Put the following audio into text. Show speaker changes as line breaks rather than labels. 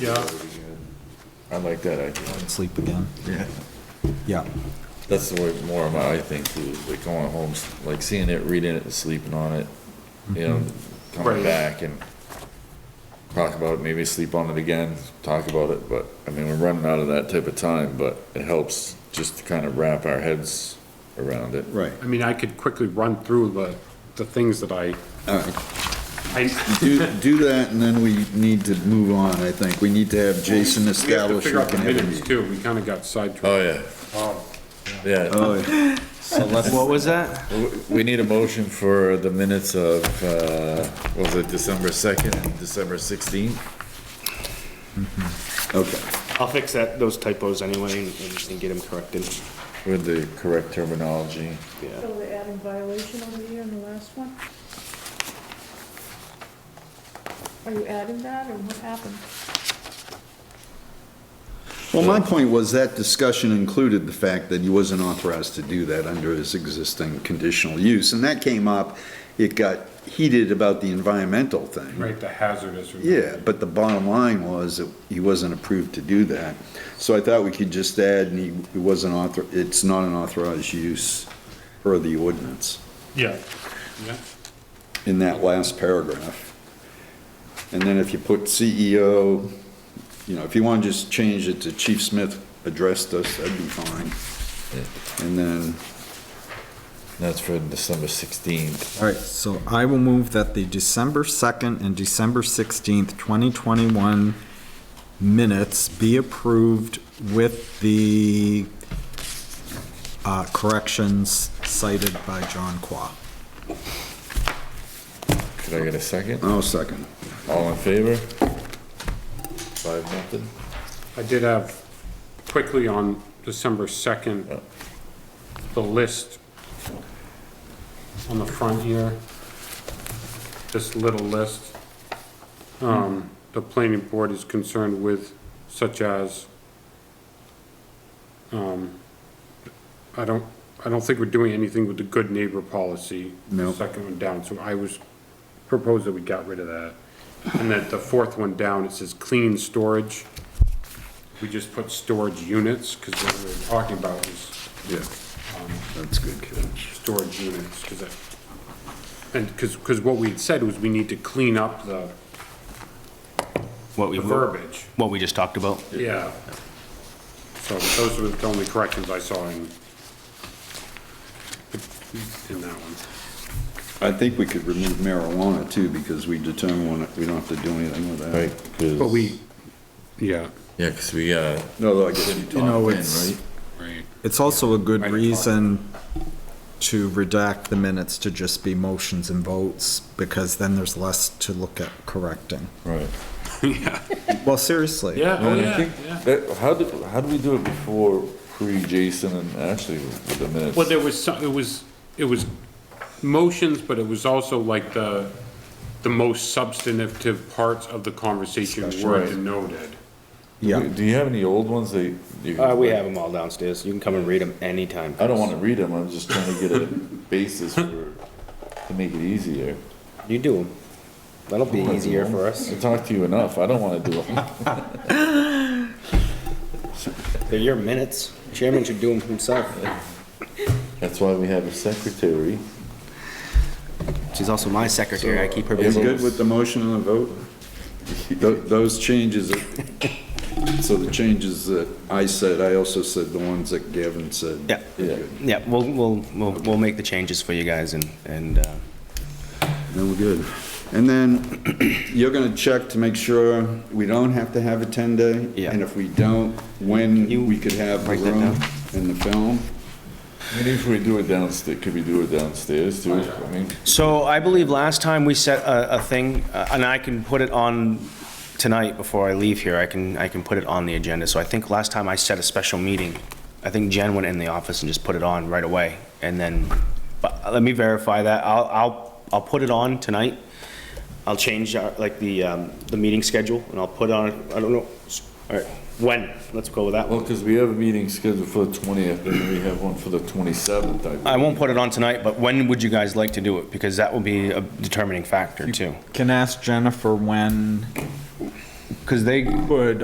Yeah,
I like that idea.
Sleep again.
Yeah.
Yeah.
That's the way, more of my, I think, too, is like going home, like seeing it, reading it, sleeping on it, you know, coming
Right.
back and talk about it, maybe sleep on it again, talk about it, but, I mean, we're running out of that type of time, but it helps just to kind of wrap our heads around it.
Right,
I mean, I could quickly run through the, the things that I,
all right.
I,
Do, do that, and then we need to move on, I think. We need to have Jason
we have to
establish.
figure out the
we can have a
minutes
meeting.
too, we kind of got sidetracked.
Oh, yeah, yeah.
Oh, yeah.
So let's. What was that?
W- We need a motion for the minutes of, uh, what was it, December 2nd and December 16th?
Okay,
I'll fix that, those typos anyway, and, and get them corrected,
With the correct terminology.
yeah.
So we're adding violation over here in the last one? Are you adding that, or what happened?
well, my point was that discussion included the fact that he wasn't authorized to do that under his existing conditional use, and that came up, it got heated about the environmental thing.
Right, the hazardous.
Yeah, but the bottom line was that he wasn't approved to do that. So I thought we could just add, and he, it wasn't author, it's not an authorized use per the ordinance
Yeah. Yeah,
in that last paragraph. And then if you put CEO, you know, if you want to just change it to Chief Smith addressed us, that'd be fine. And then,
That's for December 16th.
All right, so I will move that the December 2nd and December 16th, 2021 minutes be approved with the uh, corrections cited by John Qua.
Could I get a second?
I'll oh, second.
All in favor? Five, nothing?
I did have, quickly on December second, the list on the front here, this little list. Um, the planning board is concerned with such as, um, I don't, I don't think we're doing anything with the good neighbor policy.
No.
Second one down, so I was, proposed that we got rid of that. And then the fourth one down, it says clean storage. We just put storage units, cause what we we're talking about is
Yeah, that's good catch.
storage units, because that, and, because, because what we had said was we need to clean up the
What we,
the verbiage,
what we just talked about.
yeah. So those were the only corrections I saw in, in that one.
I think we could remove marijuana too, because we determine we don't have to do anything with that.
Right,
But
cause,
we, yeah,
yeah, cause we, uh,
No, though, I guess you
top
know,
in,
it's-
right?
right,
It's also a good
Right, Quan.
reason to redact the minutes to just be motions and votes, because then there's less to look at correcting.
Right.
Well, seriously.
yeah, oh,
And I
yeah,
think
yeah.
that- How did, how did we do it before pre-Jason and Ashley with the minutes?
Well, there was some, it was, it was motions, but it was also like the, the most substantive parts of the conversation were
Right.
denoted.
Yeah.
Do you have any old ones that you?
Uh, we have them all downstairs, you can come and read them anytime.
I don't wanna read them, I'm just trying to get a basis for, to make it easier.
You do them, that'll be easier for us,
I talked to you enough, I don't wanna do it.
they're your minutes, chairman should do them himself.
That's why we have a secretary.
She's also my secretary, I keep her
You
busy.
good with the motion and the vote? Tho- Those changes, that- so the changes that I said, I also said the ones that Gavin said.
Yeah,
Yeah.
yeah, we'll, we'll, we'll, we'll make the changes for you guys and, and, uh,
Then we're good. And then you're gonna check to make sure we don't have to have a 10-day?
Yeah.
And if we don't, when we could have the
Write that
room
down.
and the film?
And if we do it downstairs, could we do it downstairs too? I mean,
So I believe last time we set a, a thing, uh, and I can put it on tonight before I leave here, I can, I can put it on the agenda. So I think last time I set a special meeting, I think Jen went in the office and just put it on right away. And then, but let me verify that. I'll, I'll, I'll put it on tonight. I'll change our, like the, um, the meeting schedule and I'll put on, I don't know, all right, when? Let's go with that
well,
one.
because we have a meeting scheduled for the twentieth, and we have one for the twenty-seventh, I
I
believe.
won't put it on tonight, but when would you guys like to do it? Because that will be a determining factor too.
Can ask Jennifer when
because they,
Would